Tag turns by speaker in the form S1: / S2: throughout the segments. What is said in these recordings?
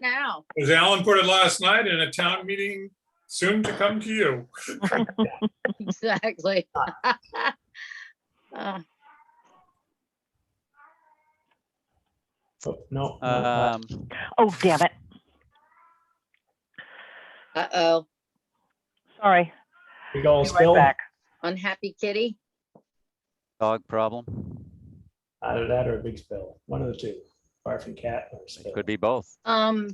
S1: now.
S2: Because Alan put it last night in a town meeting soon to come to you.
S1: Exactly. Uh,
S3: Oh, No. no,
S4: Um,
S5: Oh, damn it.
S1: Uh-oh,
S5: Sorry.
S3: We go
S5: Be right
S3: still.
S5: back.
S1: unhappy kitty?
S4: dog problem.
S3: Either that or a big spill, one of the two, barf and cat or spill.
S4: It could be both.
S1: Um,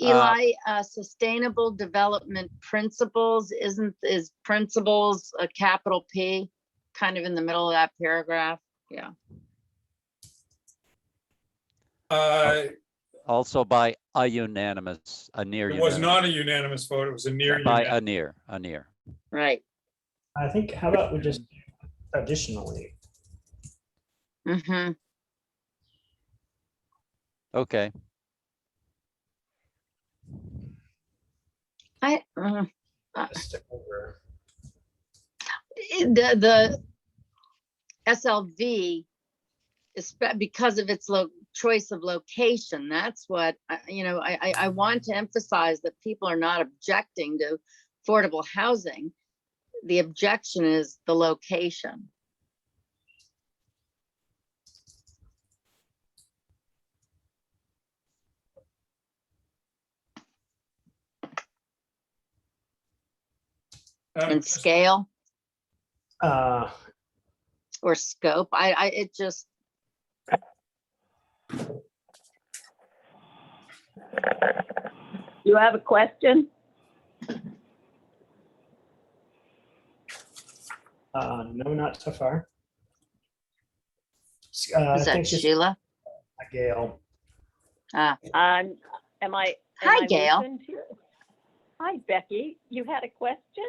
S1: Eli, uh, sustainable development principles, isn't, is principles a capital P? Kind of in the middle of that paragraph, yeah.
S2: Uh,
S4: Also by a unanimous, a near
S2: It was
S4: unanimous.
S2: not a unanimous vote. It was a near
S4: By
S2: unanimous.
S4: a near, a near.
S1: Right.
S3: I think, how about we just additionally,
S1: Mm-hmm.
S4: Okay,
S1: I, uh,
S3: just stick over,
S1: the, the SLV is spe- because of its lo, choice of location, that's what, I- you know, I, I, I want to emphasize that people are not objecting to affordable housing. The objection is the location.
S2: Uh, Um,
S1: And scale
S3: uh,
S1: or scope, I, I, it just,
S6: You have a question?
S3: uh, no, not so far. S- Uh, I
S1: is that
S3: think she's
S1: Sheila?
S3: Gail.
S6: Um, am I? am
S1: Hi,
S6: I
S1: Gail.
S6: listened to? Hi, Becky. You had a question?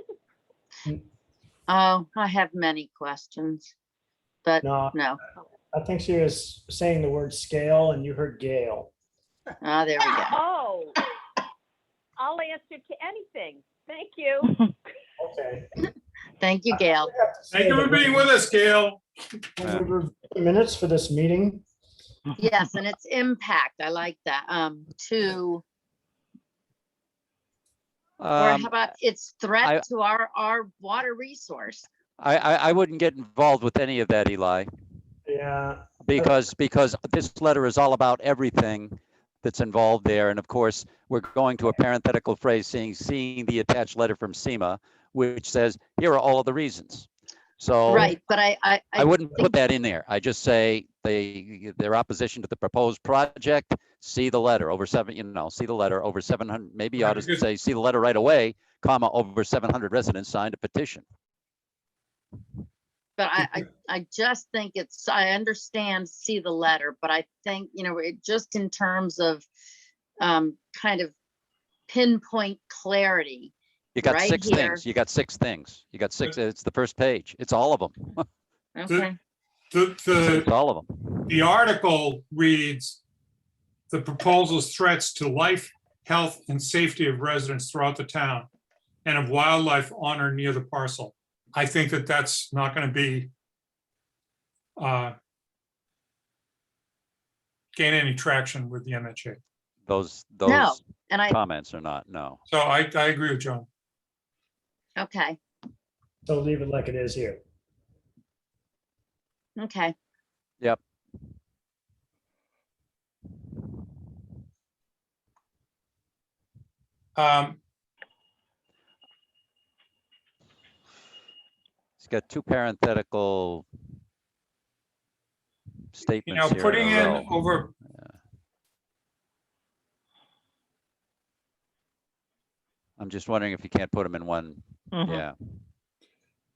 S1: Oh, I have many questions, but
S3: No,
S1: no,
S3: I think she was saying the word scale and you heard Gail.
S1: oh, there we go.
S6: Oh, I'll answer to anything. Thank you.
S3: Okay.
S1: Thank you, Gail.
S2: Thank you for being with us, Gail.
S3: Minutes for this meeting.
S1: Yes, and its impact, I like that, um, to Or
S4: um,
S1: how about its
S4: I-
S1: threat to our, our water resource?
S4: I, I, I wouldn't get involved with any of that, Eli,
S3: Yeah,
S4: because, because this letter is all about everything that's involved there. And of course, we're going to a parenthetical phrase saying, seeing the attached letter from SEMA, which says, here are all of the reasons. So
S1: Right, but I, I,
S4: Oh. I
S1: I,
S4: wouldn't put that in there. I just say they, their opposition to the proposed project, see the letter over seven, you know, see the letter over seven hundred, maybe I ought
S2: Right,
S4: to
S2: because-
S4: say, see the letter right away, comma, over seven hundred residents signed a petition.
S1: but I, I, I just think it's, I understand, see the letter, but I think, you know, it just in terms of um, kind of pinpoint clarity.
S4: You got
S1: Right
S4: six
S1: here.
S4: things, you got six things, you got six, it's the first page, it's all of them,
S1: Okay,
S2: The,
S4: it's
S2: the,
S4: all of them.
S2: the article reads, the proposal's threats to life, health, and safety of residents throughout the town and of wildlife on or near the parcel. I think that that's not going to be uh, gain any traction with the MHA.
S4: Those,
S1: No.
S4: those
S1: and I,
S4: comments are not, no.
S2: So I, I agree with John.
S1: okay,
S3: so leave it like it is here.
S1: okay,
S2: Um,
S4: It's got two parenthetical
S2: You know,
S4: statements here
S2: putting
S4: in a row.
S2: in over.
S4: I'm just wondering if you can't put them in one,
S2: Uh-huh.
S5: Mhm.
S4: yeah.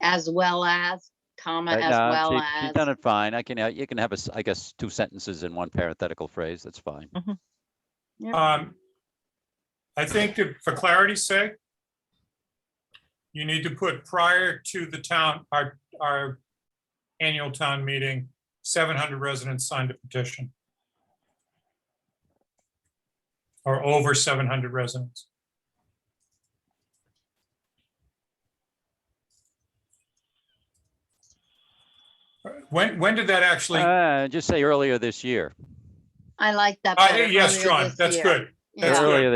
S1: as well as, comma,
S4: Uh,
S1: as
S4: no,
S1: well
S4: she- she's Done
S1: as,
S4: it fine. I can, uh, you can have a s I guess, two sentences in one parenthetical phrase. That's fine.
S2: um, I think that for clarity's sake, you need to put prior to the town, our, our annual town meeting, seven hundred residents signed a petition. Or over seven hundred residents. When, when did that actually?
S4: Uh, just say earlier this year.
S1: I like that.
S2: Uh,
S1: better,
S2: Yes,
S1: earlier
S2: John,
S1: this
S2: that's
S1: year.
S2: good.
S1: you
S2: That's
S1: know.
S2: good.
S4: Earlier